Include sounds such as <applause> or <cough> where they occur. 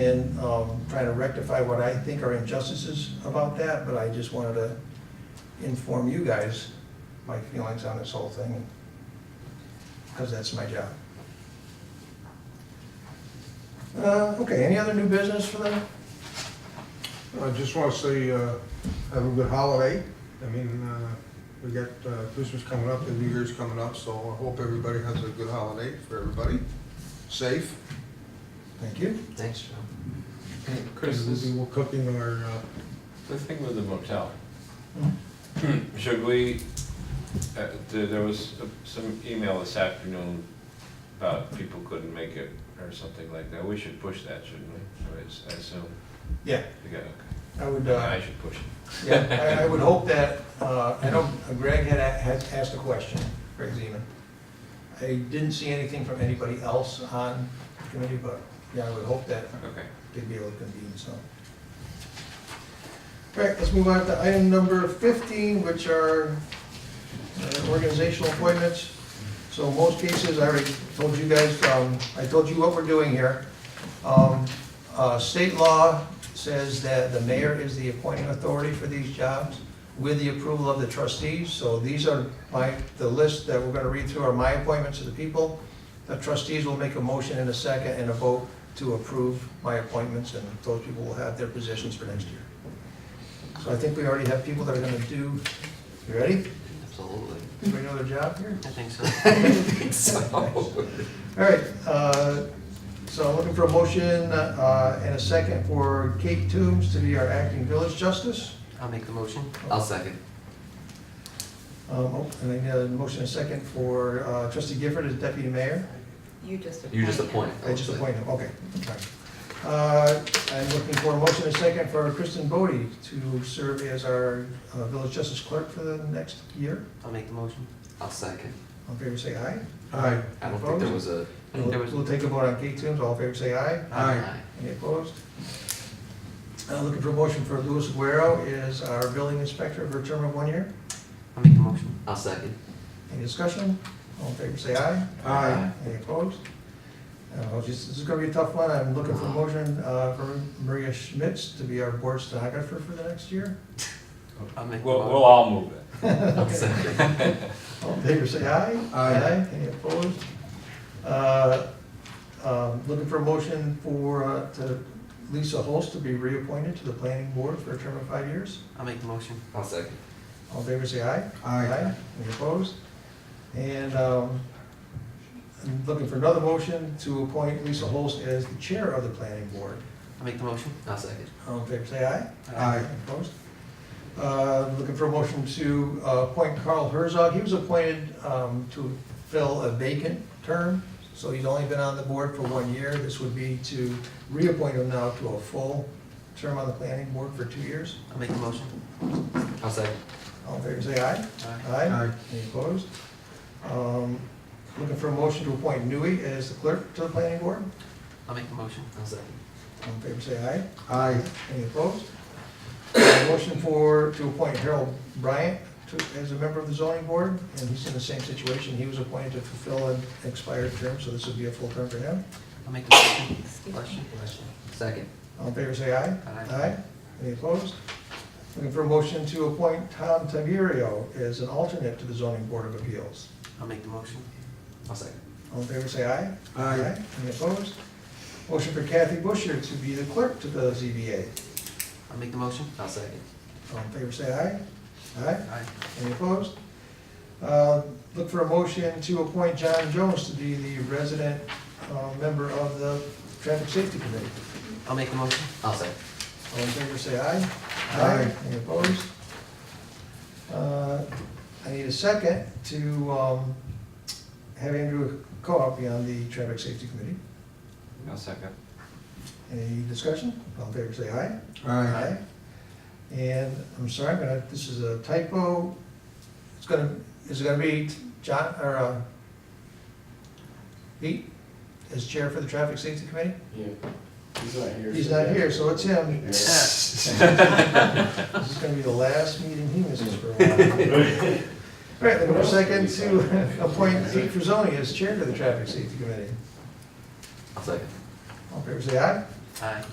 in um, trying to rectify what I think are injustices about that, but I just wanted to inform you guys my feelings on this whole thing, because that's my job. Uh, Okay, any other new business for them? I just want to say, uh, have a good holiday. I mean, uh, we got uh, Christmas coming up and New Year's coming up, so I hope everybody has a good holiday for everybody. Safe. Thank you. Thanks, Joe. Chris, And this, We'll be cooking our, uh, the thing with the motel, should we, uh, th- there was a- some email this afternoon about people couldn't make it or something like that. We should push that, shouldn't we? I s- I assume. Yeah. We got, I would, okay. uh, I should push it. yeah, I- I would hope that, uh, I know Greg had, a- had asked a question, Greg Zeman. I didn't see anything from anybody else on the committee, but yeah, I would hope that Okay. they'd be able to convene, so. All right, let's move on to item number 15, which are uh, organizational appointments. So in most cases, I already told you guys, um, I told you what we're doing here. Um, uh, State law says that the mayor is the appointing authority for these jobs with the approval of the trustees. So these are my, the list that we're going to read through are my appointments to the people. The trustees will make a motion in a second and a vote to approve my appointments, and those people will have their positions for next year. So I think we already have people that are gonna do, you ready? Absolutely. Everybody know their job <laughs> here? I think so. I think so. All right, uh, so I'm looking for a motion uh, and a second for Kate Toombs to be our acting village justice. I'll make the motion. I'll second. Um, oh, And I need a motion and a second for uh, trustee Gifford as deputy mayor. You just appoint. You just him. appoint. I just appointed him, okay. all right. Uh, I'm looking for a motion and a second for Kristen Bodie to serve as our uh, village justice clerk for the next year. I'll make the motion. I'll second. All in favor, say aye. hi, I don't think there was a. I think there was. We'll take a vote on Kate Toombs, all in favor, say aye. Aye. Any opposed? Uh, Looking for a motion for Luis Guerrero is our building inspector for a term of one year. I'll make the motion. I'll second. Any discussion? All in favor, say aye. hi. Any opposed? Uh, This this is going to be a tough one. I'm looking for a motion uh, for Maria Schmitz to be our board stenographer for the next year. I'll make the We'll, we'll motion. all move it. I'll second. All in favor, say aye. Aye. Any opposed? Uh, um, Looking for a motion for, uh, to Lisa Holst to be reappointed to the planning board for a term of five years. I'll make the motion. I'll second. All in favor, say aye. Aye. Any opposed? And um, I'm looking for another motion to appoint Lisa Holst as the chair of the planning board. I'll make the motion. I'll second. All in favor, say aye. Aye. Any Opposed? Uh, Looking for a motion to uh, appoint Carl Herzog. He was appointed um, to fill a vacant term, so he's only been on the board for one year. This would be to reappoint him now to a full term on the planning board for two years. I'll make the motion. I'll second. All in favor, say aye. Aye. Aye. Any opposed? Um, Looking for a motion to appoint Nui as the clerk to the planning board. I'll make the motion. I'll second. All in favor, say aye. Aye. Any opposed? Uh, Motion for, to appoint Harold Bryant to, as a member of the zoning board, and he's in the same situation. He was appointed to fulfill an expired term, so this would be a full term for him. I'll make the motion. Excuse me. Question? Second. All in favor, say aye. Aye. Any opposed? Looking for a motion to appoint Tom Taverio as an alternate to the zoning board of appeals. I'll make the motion. I'll second. All in favor, say aye. Aye. Any opposed? Motion for Kathy Busher to be the clerk to the ZBA. I'll make the motion. I'll second. All in favor, say aye. Aye. Aye. Any opposed? Uh, Look for a motion to appoint John Jones to be the resident uh, member of the Traffic Safety Committee. I'll make the motion. I'll second. All in favor, say aye. Aye. Any opposed? Uh, I need a second to um, have Andrew Co-op be on the Traffic Safety Committee. I'll second. Any discussion? All in favor, say aye. Aye. And I'm sorry, I'm gonna, this is a typo. It's gonna, is it gonna be John, or, uh, Pete as chair for the traffic safety committee? Yeah, he's not here. He's not here, so it's him. Yeah. <laughs> This is gonna be the last meeting he misses for a while. All right, then we're second to <laughs> appoint Pete Frisoni as chair for the traffic safety committee. I'll second. All in favor, say aye. Aye.